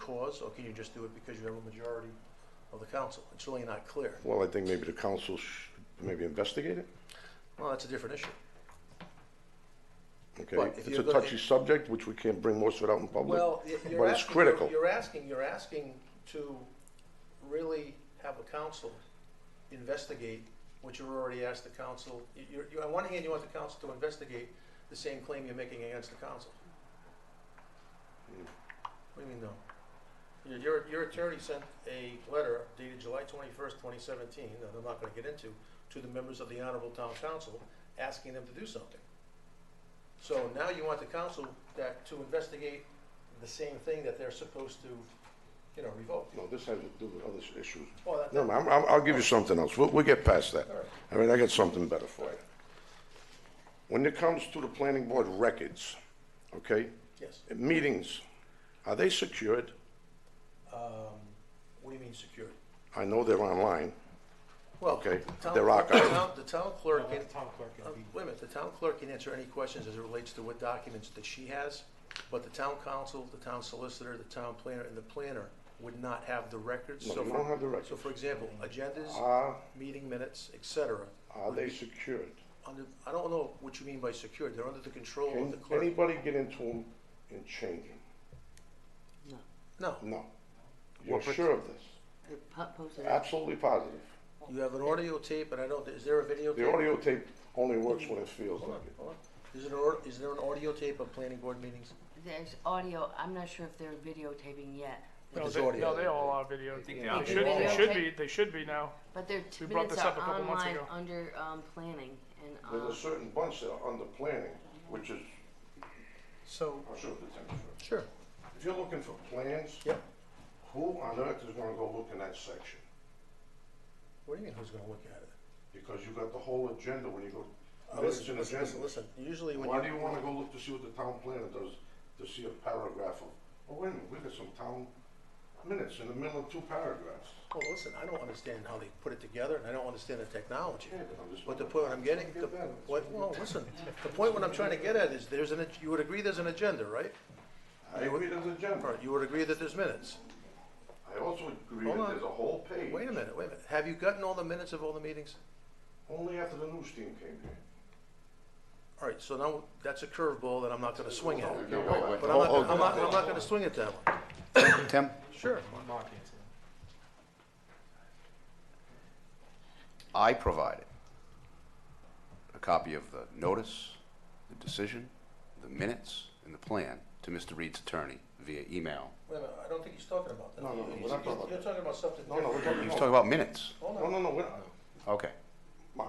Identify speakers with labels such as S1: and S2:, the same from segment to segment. S1: cause, or can you just do it because you have a majority of the council? It's really not clear.
S2: Well, I think maybe the council should maybe investigate it,
S1: Well, that's a different issue.
S2: okay?
S1: But if
S2: It's
S1: you're
S2: a
S1: go-
S2: touchy subject, which we can't bring most of it out in public,
S1: Well, y- you're
S2: but it's
S1: asking-
S2: critical.
S1: You're asking, you're asking to really have a council investigate what you're already asked the council. you- You're, you, on one hand, you want the council to investigate the same claim you're making against the council. What do you mean, no? Your- Your, your attorney sent a letter dated July twenty-first, twenty seventeen, that I'm not gonna get into, to the members of the honorable town council, asking them to do something. So now you want the council that, to investigate the same thing that they're supposed to, you know, revoke.
S2: No, this has to do with other s- issues.
S1: Well, that-
S2: No, no, I'm, I'm- I'll give you something else. We'll, we'll get past that.
S1: All right.
S2: I mean, I got something better for you. When it comes to the planning board records, okay,
S1: Yes.
S2: meetings, are they secured?
S1: What do you mean secured?
S2: I know they're online.
S1: Well,
S2: Okay,
S1: the town-
S2: they're
S1: The
S2: archived.
S1: town- the town clerk, can-
S3: Town clerk
S1: uh,
S3: and be-
S1: wait a minute, the town clerk can answer any questions as it relates to what documents that she has, but the town council, the town solicitor, the town planner, and the planner would not have the records.
S2: No,
S1: So
S2: you
S1: for-
S2: don't have the records.
S1: So for example, agendas,
S2: Are,
S1: meeting minutes, et cetera,
S2: are they secured?
S1: under, I don't know what you mean by secured, they're under the control of
S2: Can
S1: the clerk.
S2: anybody get into them and change them?
S1: No,
S2: No. You're sure of this?
S4: The po- posted it.
S2: Absolutely positive.
S1: you have an audio tape, and I don't, is there a video tape?
S2: The audio tape only works when it feels like it.
S1: Hold on. Is it, or, is there an audio tape of planning board meetings?
S4: There's audio, I'm not sure if they're videotaping yet.
S1: But
S5: No,
S1: there's
S5: they,
S1: audio.
S5: no, they all are video. They
S4: are.
S5: should, they should be, they should be now.
S4: But their t-
S5: We brought
S4: minutes
S5: this up
S4: are
S5: a couple months
S4: online
S5: ago.
S4: under, um, planning and,
S2: There's
S4: um,
S2: a certain bunch that are under planning, which is,
S3: So,
S2: I'll show you the thing first.
S1: Sure.
S2: If you're looking for plans,
S1: Yep.
S2: who on earth is gonna go look in that section?
S1: What do you mean, who's gonna look at it?
S2: Because you got the whole agenda when you
S1: Uh,
S2: go, minutes
S1: Listen,
S2: and
S1: listen,
S2: agenda.
S1: listen, listen, usually when
S2: Why do
S1: you,
S2: you wanna go look to see what the town planner does, to see a paragraph of, oh, wait a minute, we got some town minutes in the middle of two paragraphs.
S1: oh, listen, I don't understand how they put it together, and I don't understand the technology.
S2: Yeah, but I'm just-
S1: But the point I'm getting, the, what, well, listen, the point what I'm trying to get at is, there's an, ag- you would agree there's an agenda, right?
S2: I agree there's an
S1: All
S2: agenda.
S1: right, you would agree that there's minutes.
S2: I also agree
S1: Hold
S2: that
S1: on.
S2: there's a whole page.
S1: Wait a minute, wait a minute, have you gotten all the minutes of all the meetings?
S2: Only after the news team came here.
S1: All right, so now, that's a curveball that I'm not gonna swing at.
S2: Okay, wait, wait.
S1: But I'm not, I'm not, I'm not gonna swing at that one.
S6: Tim,
S1: Sure.
S6: I provided a copy of the notice, the decision, the minutes, and the plan to Mr. Reed's attorney via email.
S1: Wait a minute, I don't think he's talking about that.
S2: No, no, no, we're
S1: He's-
S2: not talking about
S1: You're
S2: that.
S1: talking about something
S2: No, no, we're
S1: different.
S2: talking,
S6: He was talking
S2: no,
S6: about minutes.
S1: Hold
S2: no,
S1: on,
S2: no, we're not.
S6: Okay.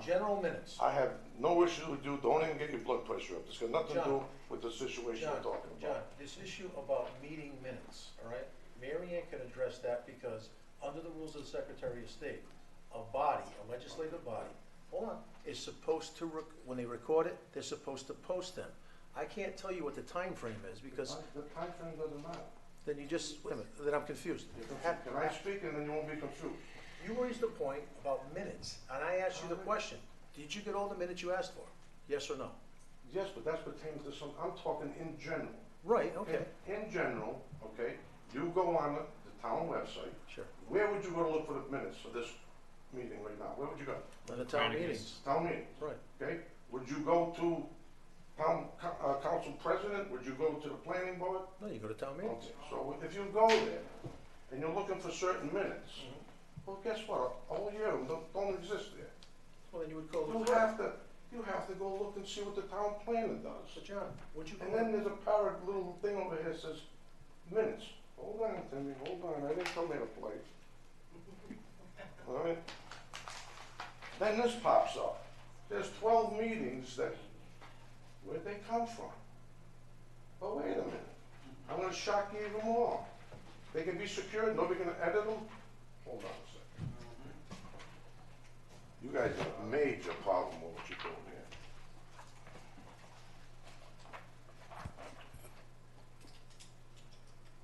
S1: general minutes.
S2: I have no issue with you, don't even get your blood pressure up, it's got nothing to do
S1: John.
S2: with the situation
S1: John,
S2: we're talking
S1: John,
S2: about.
S1: this issue about meeting minutes, all right? Mary Ann can address that because under the rules of the Secretary of State, a body, a legislative body, hold on, is supposed to, rec- when they record it, they're supposed to post them. I can't tell you what the time frame is because
S2: The time frame doesn't matter.
S1: then you just, wait a minute, then I'm confused.
S2: Can I speak and then you won't be confused?
S1: You raised a point about minutes and I asked you the question, did you get all the minutes you asked for? Yes or no?
S2: Yes, but that's pertaining to some, I'm talking in general.
S1: Right, okay.
S2: In general, okay, you go on the, the town website.
S1: Sure.
S2: Where would you go to look for the minutes for this meeting right now? Where would you go?
S1: And the town meetings,
S2: Town meeting.
S1: right.
S2: Okay, would you go to town, co- uh, council president, would you go to the planning board?
S1: No, you go to town meetings.
S2: Okay, so if you go there and you're looking for certain minutes, well, guess what? A whole year of them don't, don't exist there.
S1: Well, then you would call the
S2: You
S1: clerk.
S2: have to, you have to go look and see what the town planner
S1: So
S2: does.
S1: John, would you
S2: And
S1: go,
S2: then there's a parrot little thing over here that says minutes. Hold on, Timmy, hold on, I didn't come here to play. All right? Then this pops up. There's twelve meetings that, where'd they come from? But wait a minute, I'm gonna shock you even more. They can be secured, nobody can edit them? Hold on a second. You guys have a major problem with what you're doing here.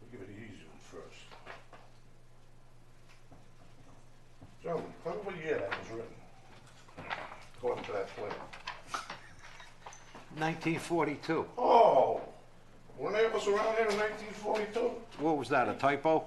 S2: We'll give it the easy one first. Gentlemen, tell me what year that was written, according to that plan.
S7: 1942.
S2: Oh, were they of us around here in nineteen forty-two?
S7: What was that, a typo?